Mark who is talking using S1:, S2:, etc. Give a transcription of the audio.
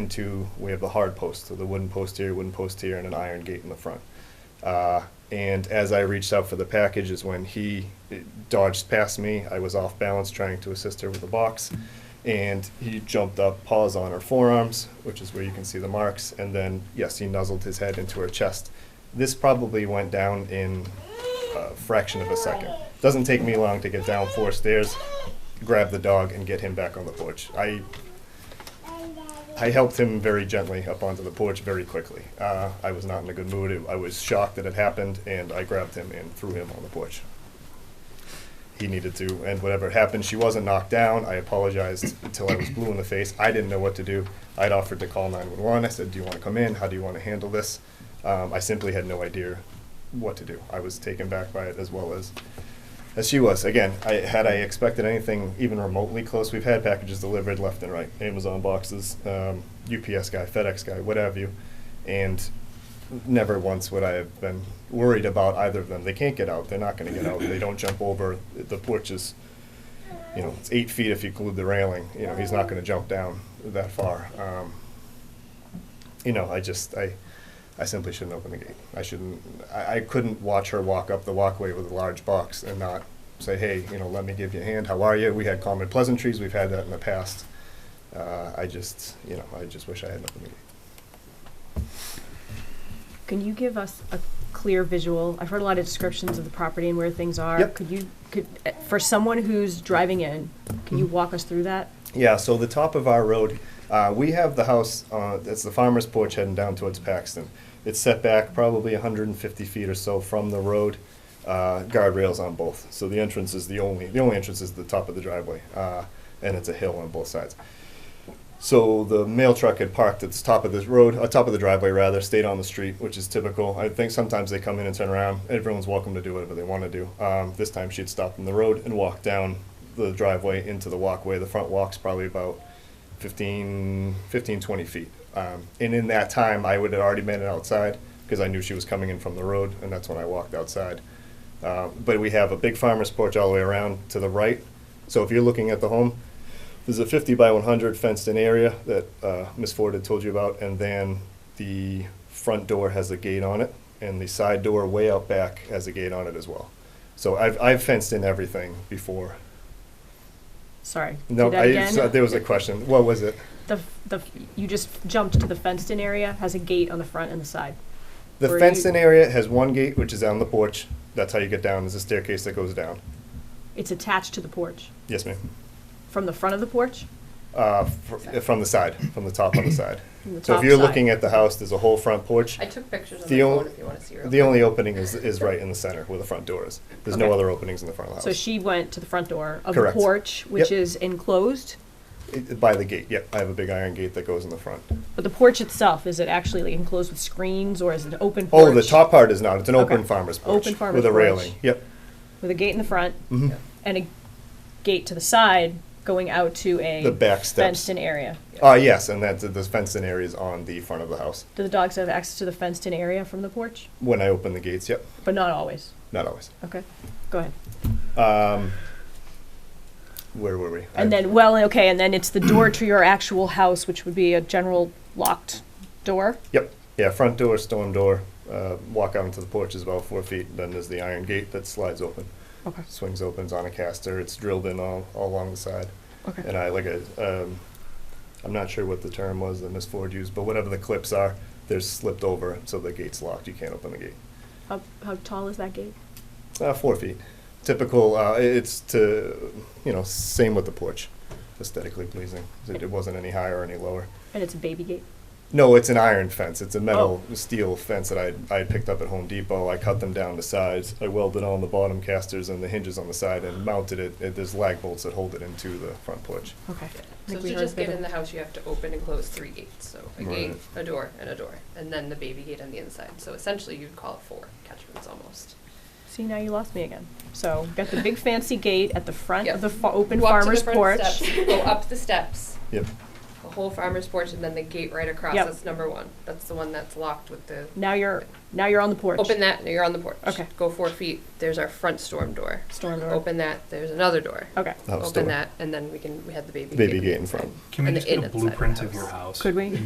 S1: into, we have the hard post, so the wooden post here, wooden post here, and an iron gate in the front. Uh, and as I reached out for the package is when he dodged past me. I was off balance trying to assist her with the box. And he jumped up, paws on her forearms, which is where you can see the marks. And then, yes, he nuzzled his head into her chest. This probably went down in a fraction of a second. Doesn't take me long to get down four stairs, grab the dog, and get him back on the porch. I I helped him very gently up onto the porch very quickly. Uh, I was not in a good mood. It, I was shocked that it happened, and I grabbed him and threw him on the porch. He needed to, and whatever happened, she wasn't knocked down. I apologized until I was blue in the face. I didn't know what to do. I'd offered to call 911. I said, Do you want to come in? How do you want to handle this? Um, I simply had no idea what to do. I was taken back by it as well as as she was. Again, I, had I expected anything even remotely close, we've had packages delivered left and right, Amazon boxes, um, UPS guy, FedEx guy, what have you, and never once would I have been worried about either of them. They can't get out. They're not going to get out. They don't jump over the porch is, you know, it's eight feet if you glued the railing. You know, he's not going to jump down that far. Um, you know, I just I. I simply shouldn't open the gate. I shouldn't. I, I couldn't watch her walk up the walkway with a large box and not say, "Hey, you know, let me give you a hand. How are you?" We had common pleasantries. We've had that in the past. Uh, I just, you know, I just wish I hadn't opened the gate.
S2: Can you give us a clear visual? I've heard a lot of descriptions of the property and where things are.
S1: Yep.
S2: Could you, could, eh, for someone who's driving in, can
S1: Mm-hmm.
S2: you walk us through that?
S1: Yeah, so the top of our road, uh, we have the house, uh, that's the farmer's porch heading down towards Paxton. It's set back probably 150 feet or so from the road, uh, guardrails on both. So the entrance is the only, the only entrance is the top of the driveway, uh, and it's a hill on both sides. So the mail truck had parked at the top of this road, uh, top of the driveway rather, stayed on the street, which is typical. I think sometimes they come in and turn around. Everyone's welcome to do whatever they want to do. Um, this time she'd stopped in the road and walked down the driveway into the walkway. The front walk's probably about 15, 15 20 feet. Um, and in that time, I would have already made it outside because I knew she was coming in from the road, and that's when I walked outside. Uh, but we have a big farmer's porch all the way around to the right. So if you're looking at the home, there's a 50 by 100 fenced in area that uh, Ms. Ford had told you about, and then the front door has a gate on it, and the side door way out back has a gate on it as well. So I've, I've fenced in everything before.
S2: Sorry.
S1: No,
S2: do that
S1: I,
S2: again.
S1: so there was a question. What was it?
S2: The, the, you just jumped to the fenced-in area, has a gate on the front and the side.
S1: The
S2: Where
S1: fenced in
S2: you-
S1: area has one gate, which is on the porch. That's how you get down. There's a staircase that goes down.
S2: It's attached to the porch,
S1: Yes, ma'am.
S2: from the front of the porch,
S1: Uh, fr- from the side, from the top on the side.
S2: from the top
S1: So if you're
S2: side.
S1: looking at the house, there's a whole front porch.
S3: I took pictures on
S1: The
S3: the
S1: only-
S3: phone if you want to see real
S1: The
S3: quick.
S1: only opening is, is right in the center where the front door is. There's no
S2: Okay.
S1: other openings in the front of the
S2: So
S1: house.
S2: she went to the front door of the
S1: Oh. Correct.
S2: porch, which
S1: Yep.
S2: is enclosed,
S1: It- By the gate, yep. I have a big iron gate that goes in the front.
S2: but the porch itself, is it actually like, enclosed with screens, or is it an open porch?
S1: Oh, the top part is not. It's an open
S2: Okay.
S1: farmer's porch.
S2: Open farmer's
S1: With a
S2: porch.
S1: railing, yep.
S2: With a gate in the front,
S1: Mhm.
S3: Yeah.
S2: and a gate to the side going out to a
S1: The back steps.
S2: fenced-in area.
S1: Uh, yes, and that's, the fenced in area is on the front of the house.
S2: Do the dogs have access to the fenced-in area from the porch?
S1: When I open the gates, yep.
S2: But not always.
S1: Not always.
S2: Okay, go ahead.
S1: Um, where were we?
S2: And
S1: I-
S2: then, well, okay, and then it's the door to your actual house, which would be a general locked door.
S1: Yep. Yeah, front door, storm door. Uh, walk out into the porch is about four feet. Then there's the iron gate that slides open,
S2: Okay,
S1: swings opens on a caster. It's drilled in all, all along the side.
S2: okay.
S1: And I like a, um, I'm not sure what the term was that Miss Ford used, but whatever the clips are, they're slipped over, so the gate's locked. You can't open the gate.
S2: How, how tall is that gate?
S1: Uh, four feet. Typical. Uh, i- it's to, you know, same with the porch, aesthetically pleasing. It, it wasn't any higher or any lower.
S2: And it's a baby gate?
S1: No, it's an iron fence. It's a metal steel fence that I I had picked up at Home Depot. I cut them down to size. I welded on the bottom casters and the hinges on the side and mounted it. it there's lag bolts that hold it into the front porch.
S2: Okay.
S3: So to just get in the house, you have to open and close three gates. So a
S1: Right.
S3: gate, a door, and a door, and then the baby gate on the inside. So essentially, you'd call it four catchments almost.
S2: See, now you lost me again. So, got the big fancy gate at the front
S3: Yep.
S2: of the fa- open
S3: Walk to the
S2: farmer's
S3: front
S2: porch.
S3: steps, Go up the steps.
S1: Yep.
S3: Go whole farmer's porch and then the gate right across,
S2: Yep.
S3: that's number one. That's the one that's locked with the,
S2: Now you're, now you're on the porch.
S3: open that, you're on the porch.
S2: Okay.
S3: Go four feet, there's our front storm door.
S2: Storm door.
S3: Open that, there's another door.
S2: Okay,
S1: House
S3: Open
S1: door.
S3: that, and then we can, we had the baby.
S1: baby gate in front.
S4: Can we
S3: And
S4: just
S3: the
S4: get
S3: inside
S4: a
S3: of the
S4: blueprint of
S3: house.
S4: your house?
S2: Could we?
S4: And